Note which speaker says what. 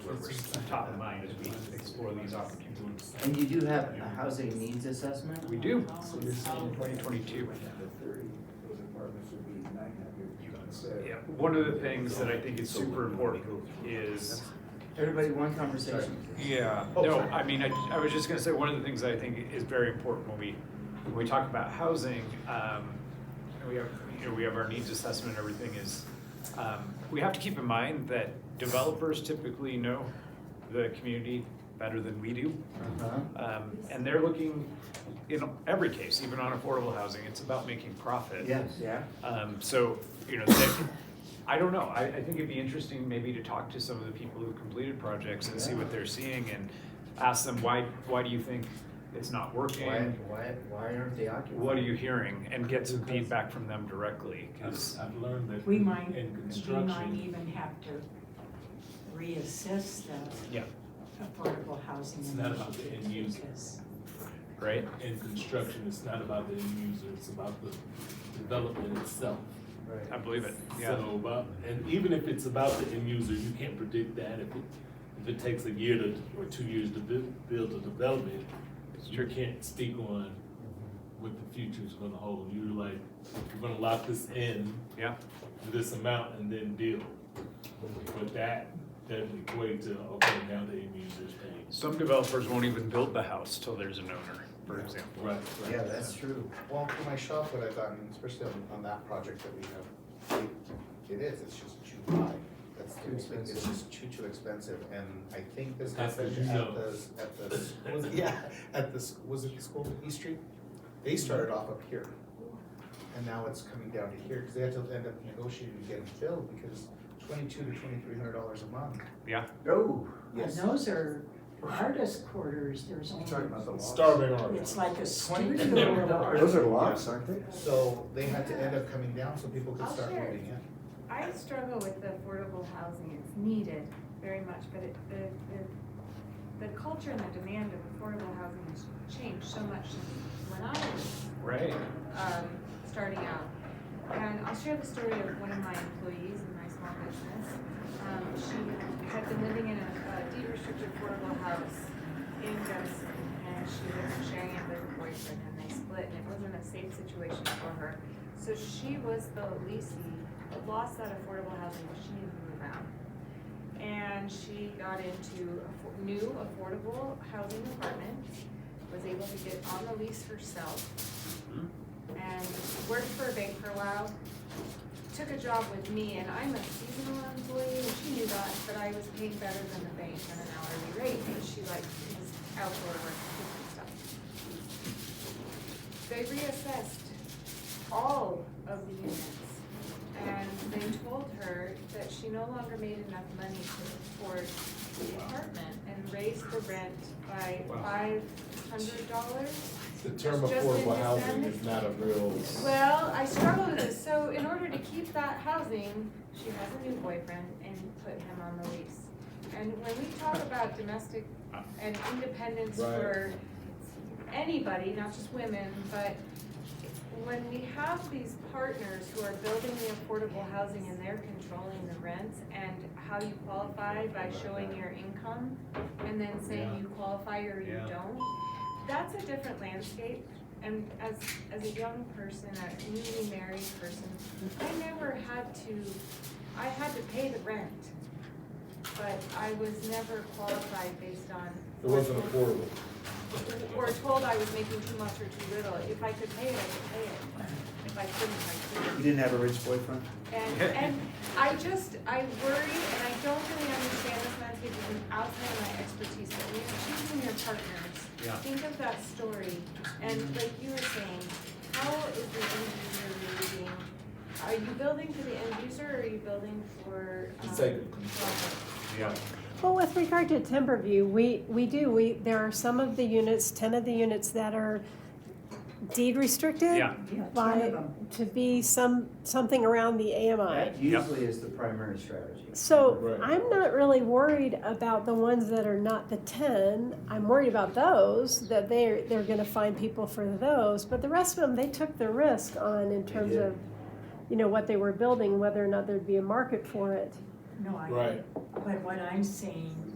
Speaker 1: sort of we're top of mind as we explore these opportunities.
Speaker 2: And you do have a housing needs assessment?
Speaker 1: We do, so this is twenty twenty-two. Yeah, one of the things that I think is super important is Oh,
Speaker 2: Everybody, one conversation.
Speaker 1: Yeah, no, I mean, I, I was just gonna say, one of the things I think is very important when we, when we talk about housing, um, and we have, you know, we have our needs assessment, and everything is, um, we have to keep in mind that developers typically know the community better than we do.
Speaker 2: Uh-huh.
Speaker 1: Um, and they're looking, in every case, even on affordable housing, it's about making profit.
Speaker 2: Yes, yeah.
Speaker 1: Um, so, you know, that, I don't know, I, I think it'd be interesting maybe to talk to some of the people who completed projects and see what they're seeing and ask them, why, why do you think it's not
Speaker 2: Why,
Speaker 1: working?
Speaker 2: why, why aren't they occupied?
Speaker 1: What are you hearing? And get some feedback from them directly,
Speaker 3: I've,
Speaker 1: cause,
Speaker 3: I've learned that
Speaker 4: We
Speaker 3: in
Speaker 4: might, we might
Speaker 3: construction,
Speaker 4: even have to reassess the
Speaker 1: yeah,
Speaker 4: affordable housing
Speaker 3: It's not about the
Speaker 4: initiative
Speaker 3: end user.
Speaker 4: because
Speaker 1: right?
Speaker 3: in construction, it's not about the end user, it's about the development itself.
Speaker 1: I
Speaker 2: Right.
Speaker 1: believe it, yeah,
Speaker 3: So about, and even if it's about the end user, you can't predict that. If it, if it takes a year to, or two years to bu- build a development, you can't speak on what the future's gonna hold. You're like, you're gonna lock this in
Speaker 1: yeah,
Speaker 3: to this amount and then deal. But that doesn't equate to, okay, now the end user's paying.
Speaker 1: some developers won't even build the house till there's an owner, for example.
Speaker 3: Right, right.
Speaker 2: Yeah, that's true.
Speaker 5: Well, for my shop, what I've gotten, especially on, on that project that we have, it, it is, it's just too high. That's
Speaker 2: Too
Speaker 5: too expensive, it's
Speaker 2: expensive.
Speaker 5: just too, too expensive, and I think this
Speaker 3: That's
Speaker 5: happened
Speaker 3: what you
Speaker 5: at
Speaker 3: know.
Speaker 5: the, at the, was it, yeah, at the, s- was it the school in East Street? They started off up here, and now it's coming down to here, cause they had to end up negotiating to get it filled, because twenty-two to twenty-three hundred dollars a month.
Speaker 2: Oh,
Speaker 4: and those are artist quarters, there's
Speaker 5: You talking about
Speaker 4: only,
Speaker 5: the loft?
Speaker 3: Starving artist.
Speaker 4: it's like a
Speaker 2: twenty
Speaker 4: studio.
Speaker 2: million
Speaker 4: or-
Speaker 2: dollars.
Speaker 6: Those are lofts, aren't they?
Speaker 5: So they had to end up coming down so people could
Speaker 7: I'll
Speaker 5: start
Speaker 7: share.
Speaker 5: moving in.
Speaker 7: I struggle with the affordable housing, it's needed very much, but it, the, the, the culture and the demand of affordable housing has changed so much since when I was,
Speaker 1: Right,
Speaker 7: um, starting out. And I'll share the story of one of my employees in my small business. Um, she had been living in a, a deed restricted affordable house in Gunnison, and she was sharing it with her boyfriend, and they split, and it wasn't a safe situation for her. So she was the leasing, lost that affordable housing, but she needed to move out. And she got into affo- new affordable housing apartments, was able to get on the lease herself. And worked for a bank for a while, took a job with me, and I'm a seasonal employee, and she knew that, but I was paid better than the bank on an hourly rate, and she liked was outdoor work and stuff they reassessed all of the units. And they told her that she no longer made enough money to afford the apartment and raised the rent by
Speaker 3: Wow.
Speaker 7: five hundred dollars.
Speaker 3: The
Speaker 7: term Just affordable in housing is
Speaker 3: not a real.
Speaker 7: Well, I struggle with this, so in order to keep that housing, she has a new boyfriend and put him on the lease. And when we talk about domestic and independence for anybody, not just women, but when we have these partners who are building the affordable housing and they're controlling the rents and how you qualify by showing your income and then saying you qualify or you
Speaker 1: Yeah.
Speaker 7: don't, that's a different landscape. And as, as a young person, a newly married person, I never had to, I had to pay the rent. But I was never qualified based on. It wasn't affordable. Or told I was making too much or too little. If I could pay it, I could pay it. If I couldn't, I couldn't.
Speaker 2: You didn't have a rich boyfriend?
Speaker 7: And, and I just, I worry, and I don't really understand this landscape, because it's outside of my expertise, but when you're choosing your partners,
Speaker 1: Yeah.
Speaker 7: think of that story, and like you were saying, how is the end user really being, are you building for the end user, or are you building for, um,
Speaker 3: It's like-
Speaker 7: profit?
Speaker 1: yeah,
Speaker 8: Well, with regard to Timberview, we, we do, we, there are some of the units, ten of the units that are deed restricted.
Speaker 1: yeah,
Speaker 4: Yeah, ten of
Speaker 8: By,
Speaker 4: them.
Speaker 8: to be some, something around the AMI.
Speaker 2: That usually is the primary strategy.
Speaker 8: So
Speaker 3: Right.
Speaker 8: I'm not really worried about the ones that are not the ten. I'm worried about those, that they're, they're gonna find people for those. But the rest of them, they took the risk on in
Speaker 2: They
Speaker 8: terms
Speaker 2: did.
Speaker 8: of, you know, what they were building, whether or not there'd be a market for it.
Speaker 4: No, I,
Speaker 3: Right.
Speaker 4: but what I'm saying